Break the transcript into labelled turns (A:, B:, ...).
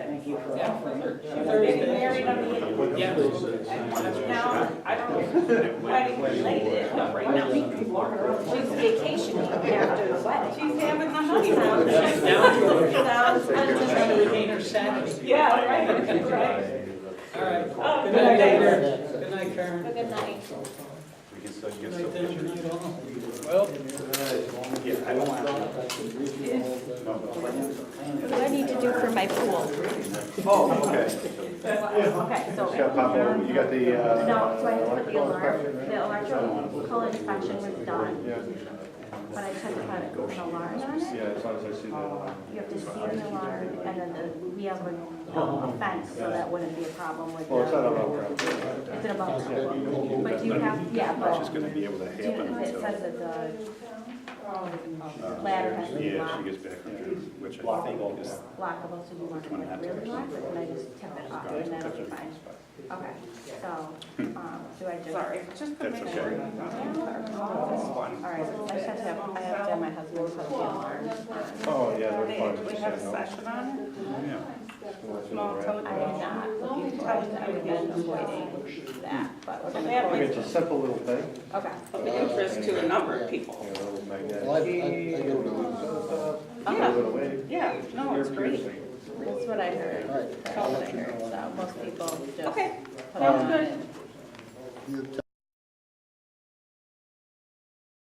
A: you for
B: Yeah, for
A: offering.
B: sure.
A: She was getting
B: Thursday.
A: married on the eighth.
B: Yeah.
A: Now,
B: I don't know.
A: I didn't relate it, but right now, she's walking around, she's vacationing after the wedding. She's having the honeymoon.
B: She's down to it.
A: Sounds
B: Trying to
A: unbelievable.
B: regain her sanity.
A: Yeah, right, right.
B: All right.
A: Oh,
B: Good night,
A: okay.
B: Karen. Good night, Karen.
A: Good night.
C: We can still
B: Good
C: get some
B: night, Dave.
C: pictures.
B: Good night, all. Well,
C: Yeah, I don't want to.
D: What do I need to do for my pool?
C: Oh, okay.
D: Okay, so.
C: You got pop over, you got the, uh.
D: No, so I need to put the alarm,
C: electrical-
D: the electrical inspection was done,
C: Yeah,
D: but I took about an alarm on it.
C: yeah, as long as I see the uh, alarm.
D: You have to see an alarm, and then the, we have a, um, a fence, so that wouldn't be a problem with the.
C: Well, it's not about.
D: It's an above problem. But do you have, yeah,
C: It's just
D: but,
C: gonna be able to
D: do you,
C: happen
D: because it
C: until.
D: says that the ladder has to be
C: Yeah, she
D: locked,
C: gets back from there, which I think is.
D: lockable, so you want it like really locked, and I just tip it off, and that'll be fine. Okay, so, um, do I just?
E: Sorry, just to
C: That's
E: make
C: okay.
E: sure.
D: All right, I just have to have, I have to have my husband put the alarm on.
C: Oh, yeah, they're fine.
E: Did we have a session on it?
C: Yeah.
E: No, tell it
D: I am not, looking for- I've been avoiding that, but we're gonna,
E: That
C: Look,
E: makes
C: It's a simple little thing.
D: okay.
E: of interest to a number of people.
C: You know, little magnetic.
F: Well, I, I, I go to,
C: Give it away.
E: Yeah, no, it's
C: Ear
E: great.
C: piercing.
D: That's what I heard,
F: all right,
D: that's
F: I'll
D: what I
F: let you
D: heard,
F: know.
D: so most people just.
E: Okay,
D: put it
E: sounds
D: on.
E: good.
F: Your